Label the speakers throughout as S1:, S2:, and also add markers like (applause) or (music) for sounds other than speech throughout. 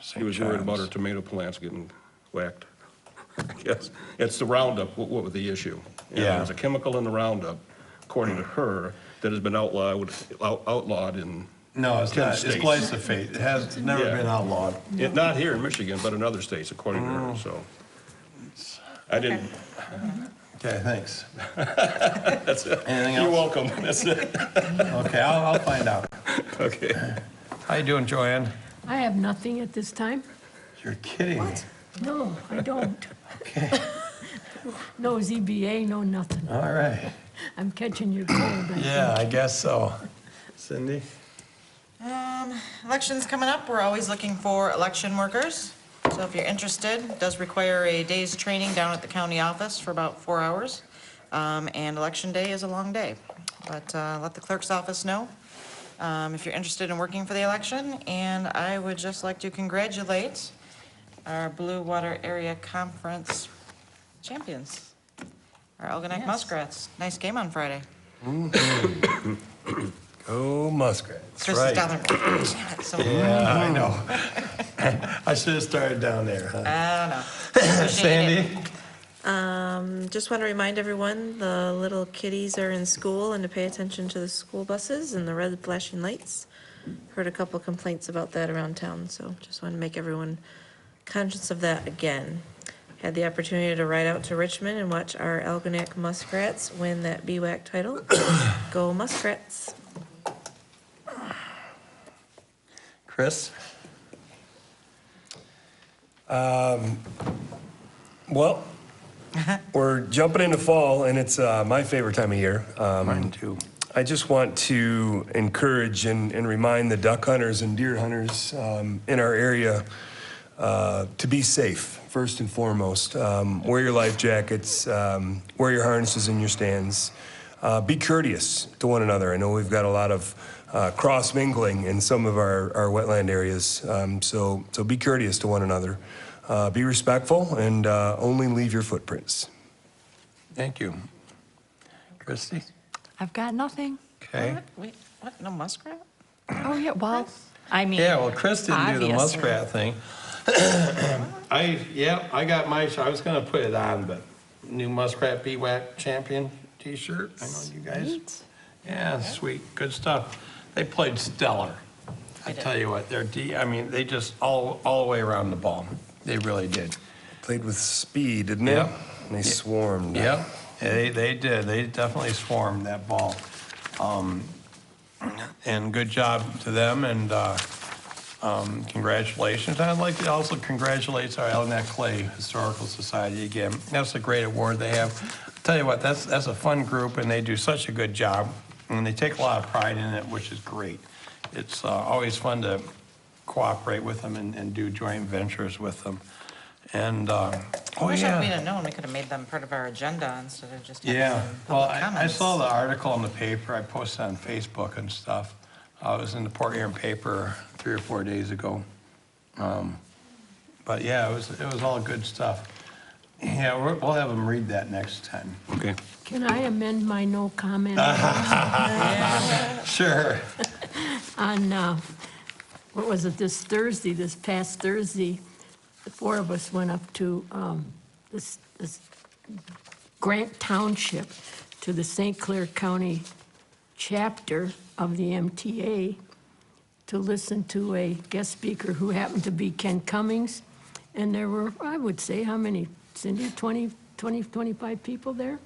S1: He was worried about our tomato plants getting whacked. (laughs) I guess, it's the Roundup, what, what was the issue? And
S2: Yeah.
S1: There's a chemical in the Roundup, according to her, that has been outlawed, out- outlawed in,
S2: No, it's
S1: Ten
S2: not, it's
S1: states.
S2: glyphosate, it has it's never
S1: Yeah.
S2: been outlawed.
S1: it- not here in Michigan, but in other states, according to
S2: Oh.
S1: her, so. I didn't,
S2: Okay, thanks. (laughs)
S1: that's it.
S2: Anything
S1: You're
S2: else?
S1: welcome, (laughs) that's it,
S2: Okay, I'll, I'll find out.
S1: okay.
S2: How you doing, Joanne?
S3: I have nothing at this time.
S2: You're kidding. me.
S3: No, I don't. No ZBA, no nothing.
S2: All right,
S3: I'm catching your cold. I
S2: yeah,
S3: think.
S2: I guess so. Cindy?
S4: Election's coming up, we're always looking for election workers. So if you're interested, it does require a day's training down at the county office for about four hours. Um, And election day is a long day, but uh, let the clerk's office know um, if you're interested in working for the election. And I would just like to congratulate our Blue Water Area Conference champions, our Algonac Muskrats. Nice game on Friday.
S2: Go Muskrats,
S4: Chris is down
S2: right.
S4: there. Damn it, so-
S2: Yeah, I know. (laughs) I should have started down there, huh?
S4: I don't know.
S2: Sandy?
S5: Um, Just want to remind everyone, the little kiddies are in school and to pay attention to the school buses and the red flashing lights. Heard a couple complaints about that around town, so just want to make everyone conscious of that again. Had the opportunity to ride out to Richmond and watch our Algonac Muskrats win that BWAC title. (coughs) Go Muskrats.
S2: Chris? Um, well,
S6: We're jumping into fall, and it's uh, my favorite time of year. Um,
S2: mine too.
S6: I just want to encourage and, and remind the duck hunters and deer hunters um, in our area uh, to be safe, first and foremost. Um, wear your life jackets, um, wear your harnesses in your stands. Uh, be courteous to one another. I know we've got a lot of uh, cross mingling in some of our, our wetland areas, um, so, so be courteous to one another. Uh, be respectful and uh, only leave your footprints.
S2: Thank you. Christie?
S7: I've got nothing.
S2: Okay.
S4: What? Wait, what? No muskrat?
S7: Oh, yeah, well, I mean.
S2: Yeah, well, Chris didn't do the
S7: obviously.
S2: muskrat thing. (coughs) I, yeah, I got my, I was gonna put it on, but new muskrat BWAC champion t-shirt, I know you guys.
S7: Sweet.
S2: Yeah, sweet, good stuff. They played stellar. I tell you what, they're D, I mean, they just all, all the way around the ball. They really did.
S6: Played with speed, didn't they?
S2: Yep.
S6: And they swarmed.
S2: Yep, they, they did, they definitely swarmed that ball. Um, And good job to them, and uh, um, congratulations. I'd like to also congratulate our Elginak Clay Historical Society again. That's a great award they have. Tell you what, that's, that's a fun group, and they do such a good job, and they take a lot of pride in it, which is great. It's uh, always fun to cooperate with them and and do joint ventures with them. And, uh, oh, yeah.
S4: I wish I- we'd have known, we could have made them part of our agenda instead of just having
S2: Yeah,
S4: them
S2: well,
S4: public
S2: I, I
S4: comments.
S2: saw the article in the paper, I posted on Facebook and stuff. Uh, it was in the Port Huron paper three or four days ago. Um, But yeah, it was, it was all good stuff. Yeah, we'll, we'll have them read that next time.
S1: Okay.
S3: Can I amend my no comment
S2: Sure.
S3: on, uh, what was it, this Thursday, this past Thursday? The four of us went up to um, this this Grant Township, to the St. Clair County chapter of the MTA, to listen to a guest speaker who happened to be Ken Cummings. And there were, I would say, how many, Cindy, 20, 20, 25 people there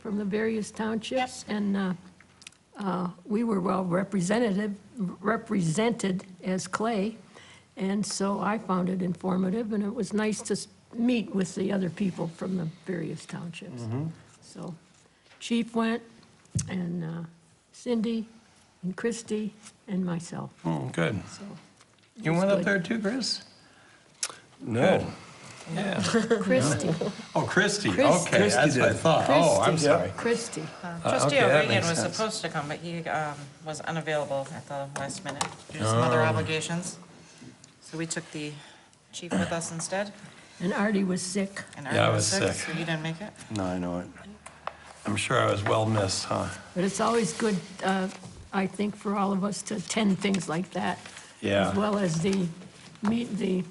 S3: from the various townships? And uh, uh, we were well representative, represented as Clay. And so I found it informative, and it was nice to s- meet with the other people from the various townships. So Chief went, and uh, Cindy, and Christy, and myself,
S2: Mm, Good. (laughs)
S3: so. it
S2: You
S3: was
S2: went up
S3: good.
S2: there too, Chris?
S6: No.
S2: Yeah.
S3: Christie,
S2: Oh, Christie,
S3: Christie.
S2: okay, that's what I thought. Oh, I'm
S3: Christie.
S2: sorry.
S3: Christie.
S4: Uh, Trustee
S2: okay, that
S4: O'Regan
S2: makes
S4: was
S2: sense.
S4: supposed to come, but he um, was unavailable at the last minute due to some other
S2: Oh.
S4: obligations. So we took the chief with us instead.
S3: And Artie was sick.
S4: and
S2: Yeah, I
S4: Arden
S2: was sick.
S4: So you didn't make it?
S2: No, I know it. I'm sure I was well missed, huh?
S3: But it's always good, uh, I think, for all of us to attend things like that.
S2: Yeah.
S3: As well as the, meet the